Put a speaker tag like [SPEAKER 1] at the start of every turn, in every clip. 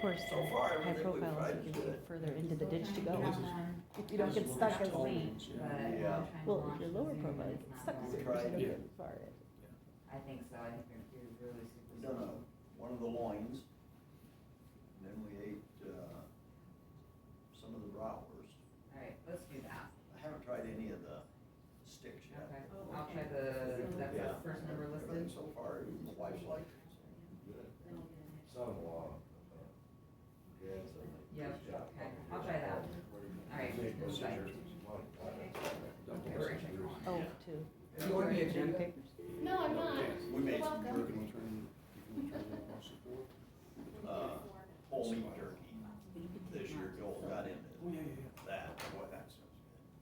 [SPEAKER 1] course, uh,
[SPEAKER 2] So far,
[SPEAKER 1] high
[SPEAKER 2] everything we've
[SPEAKER 1] profile
[SPEAKER 2] tried
[SPEAKER 1] is you
[SPEAKER 2] to
[SPEAKER 1] can
[SPEAKER 2] do.
[SPEAKER 1] get further into the ditch to
[SPEAKER 3] Well,
[SPEAKER 1] go.
[SPEAKER 3] this is-
[SPEAKER 1] If you don't
[SPEAKER 3] this
[SPEAKER 1] get
[SPEAKER 3] is what
[SPEAKER 1] stuck
[SPEAKER 3] we're
[SPEAKER 1] as,
[SPEAKER 3] told,
[SPEAKER 4] but
[SPEAKER 3] yeah.
[SPEAKER 2] Yeah.
[SPEAKER 1] well, if you're lower profile, it's stuck as,
[SPEAKER 2] We
[SPEAKER 1] you don't
[SPEAKER 2] tried.
[SPEAKER 1] get far.
[SPEAKER 4] I think so, I think they're, they're really super.
[SPEAKER 2] We done a, one of the loins, and then we ate, uh, some of the rowers.
[SPEAKER 4] Alright, let's do that,
[SPEAKER 2] I haven't tried any of the sticks yet.
[SPEAKER 4] okay, Oh, I'll try the, that's
[SPEAKER 2] Yeah.
[SPEAKER 4] the first number
[SPEAKER 2] Everything
[SPEAKER 4] listed,
[SPEAKER 2] So far, even the wife's like,
[SPEAKER 3] Son-in-law. uh,
[SPEAKER 4] Yeah, okay, I'll try that. All right,
[SPEAKER 3] Save
[SPEAKER 4] we'll
[SPEAKER 3] those
[SPEAKER 4] try.
[SPEAKER 3] scissors and money. Double
[SPEAKER 4] Okay, we're
[SPEAKER 3] scissors.
[SPEAKER 4] gonna
[SPEAKER 1] Oh, two.
[SPEAKER 4] Do you want me to do that?
[SPEAKER 5] No, I'm not.
[SPEAKER 2] we made
[SPEAKER 5] You're
[SPEAKER 2] some
[SPEAKER 5] welcome.
[SPEAKER 2] jerky, uh, whole meat jerky this year, Joel got into that, boy, that sounds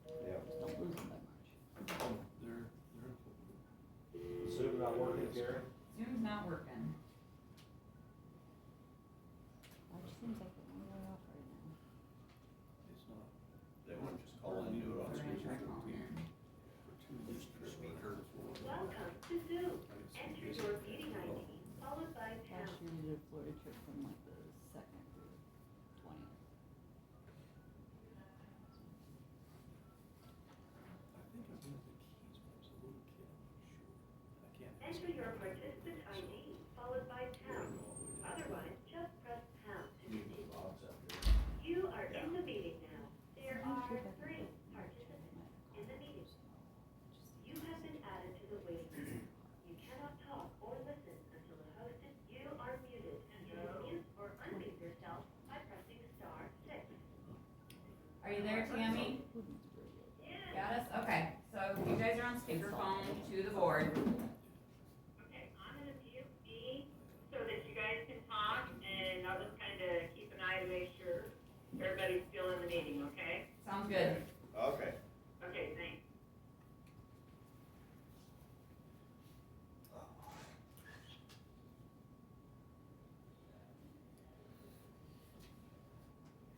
[SPEAKER 3] Yeah.
[SPEAKER 1] Don't lose them that
[SPEAKER 3] Zoom not working, Karen?
[SPEAKER 4] Zoom's not working.
[SPEAKER 1] much. Which seems like we're one way off right now.
[SPEAKER 2] good. They want to just call and do it
[SPEAKER 4] We're
[SPEAKER 2] on
[SPEAKER 4] gonna
[SPEAKER 2] speaker.
[SPEAKER 4] try calling in.
[SPEAKER 2] Speaker.
[SPEAKER 6] Welcome to Zoom. Enter your meeting ID followed by
[SPEAKER 1] Last
[SPEAKER 6] pound.
[SPEAKER 1] year we did a Florida trip from like the second through twentieth.
[SPEAKER 6] Enter your participant ID followed by pound. Otherwise, just press pound to continue. You are in the meeting now. There are three participants in the meeting. You have been added to the waiting list. You cannot talk or listen until the host is, you are muted. You can mute or unmute yourself by pressing star six.
[SPEAKER 4] Are you there, Tammy? Got us, okay, so you guys are on speakerphone to the board.
[SPEAKER 6] Okay, I'm gonna mute me so that you guys can talk, and I'll just kind of keep an eye to make sure everybody's still in the meeting, okay?
[SPEAKER 4] Sounds good.
[SPEAKER 2] Okay.
[SPEAKER 6] Okay, thanks.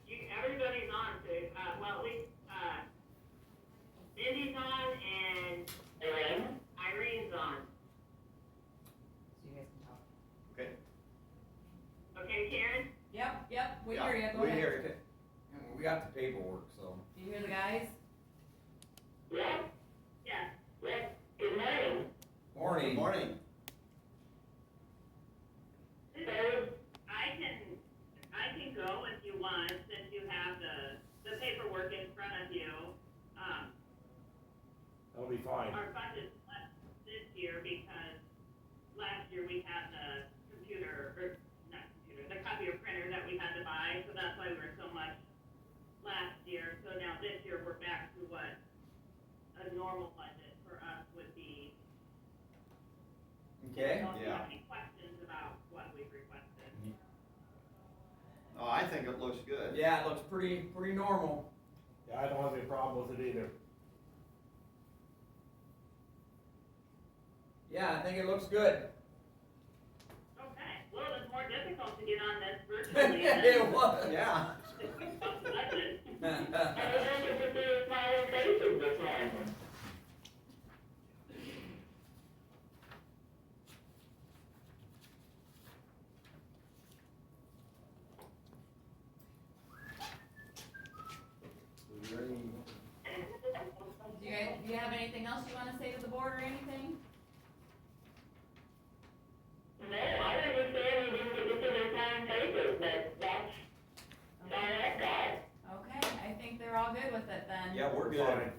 [SPEAKER 6] You, everybody's on, so, uh, well, at least, uh, Mindy's on and Irene- Irene's on.
[SPEAKER 4] So you guys can talk.
[SPEAKER 2] Okay.
[SPEAKER 6] Okay, Karen?
[SPEAKER 4] Yep, yep, we
[SPEAKER 2] Yeah,
[SPEAKER 4] hear you, go
[SPEAKER 2] we
[SPEAKER 4] ahead.
[SPEAKER 2] hear you.
[SPEAKER 7] And we got the paperwork, so.
[SPEAKER 4] Do you hear the guys?
[SPEAKER 6] Yes. Yes. Yes. Good morning.
[SPEAKER 2] Good
[SPEAKER 7] Morning.
[SPEAKER 2] morning.
[SPEAKER 6] I can, I can go if you want, since you have the, the paperwork in front of you. Um,
[SPEAKER 3] That'll be fine.
[SPEAKER 6] our budget's less this year because last year we had the computer, or not computer, the copier printer that we had to buy, so that's why we were so much last year. So now this year, we're back to what a normal budget for us would be.
[SPEAKER 7] Okay.
[SPEAKER 6] Don't you
[SPEAKER 2] Yeah.
[SPEAKER 6] have any questions about what we've requested?
[SPEAKER 2] Oh, I think it looks good.
[SPEAKER 7] Yeah, it looks pretty, pretty normal.
[SPEAKER 3] Yeah, I don't have any problem with it either.
[SPEAKER 7] Yeah, I think it looks good.
[SPEAKER 6] Okay, well, it was more difficult to get on this virtually than.
[SPEAKER 7] It was.
[SPEAKER 2] Yeah.
[SPEAKER 6] Budget.
[SPEAKER 2] Was there any
[SPEAKER 4] Do you guys, do you have anything else you wanna say to the board or anything?
[SPEAKER 6] No, I understand you didn't get to the town papers, but that's, that's that.
[SPEAKER 4] Okay, I think they're all good with it then.
[SPEAKER 2] Yeah, we're good.
[SPEAKER 3] Fine.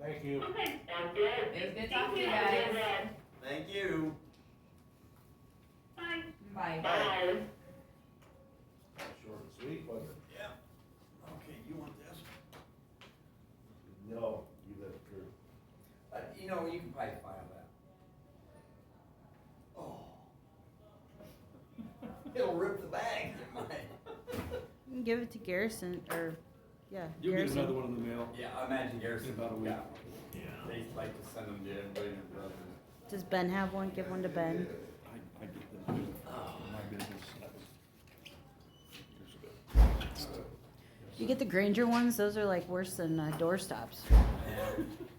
[SPEAKER 3] Thank you.
[SPEAKER 6] Okay, sounds good.
[SPEAKER 4] It was good talking to you
[SPEAKER 6] Thank
[SPEAKER 4] guys.
[SPEAKER 2] Thank you.
[SPEAKER 6] Bye.
[SPEAKER 4] Bye.
[SPEAKER 6] Bye.
[SPEAKER 3] Short and sweet, wasn't it?
[SPEAKER 2] Yeah. Okay, you want this?
[SPEAKER 3] No, you let it through.
[SPEAKER 7] Uh, you know, you can probably file that.
[SPEAKER 2] Oh. It'll rip the bag.
[SPEAKER 1] You can give it to Garrison, or, yeah.
[SPEAKER 8] You'll get another one in the mail.
[SPEAKER 7] Yeah, I imagine Garrison.
[SPEAKER 8] In about a week.
[SPEAKER 7] got one. They like to send them to everybody and their brother.
[SPEAKER 1] Does Ben have one? Give one to Ben.
[SPEAKER 8] I, I get them too. My business. Years ago.
[SPEAKER 1] You get the Granger ones, those are like worse than uh, doorstops.
[SPEAKER 8] uh,